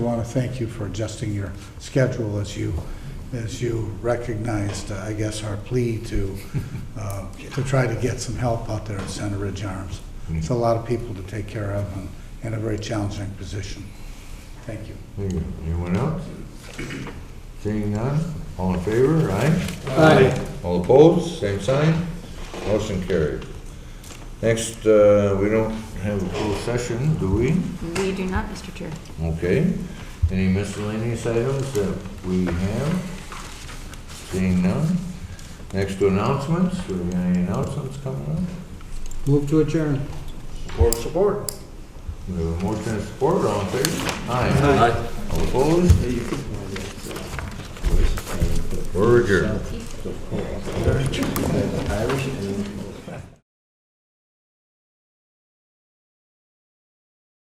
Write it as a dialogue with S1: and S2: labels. S1: want to thank you for adjusting your schedule as you, as you recognized, uh, I guess, our plea to, uh, to try to get some help out there at Center Ridge Arms. It's a lot of people to take care of and in a very challenging position. Thank you.
S2: Thank you. Anyone else? Seeing none, all in favor, aye?
S3: Aye.
S2: All opposed, same sign, motion carried. Next, uh, we don't have a full session, do we?
S4: We do not, Mr. Chair.
S2: Okay, any miscellaneous items that we have? Seeing none. Next to announcements, do we have any announcements coming up?
S3: Move to adjourn.
S2: Support, support. We have a motion and support, all in favor? Aye. All opposed? We're adjourned.
S5: Irish and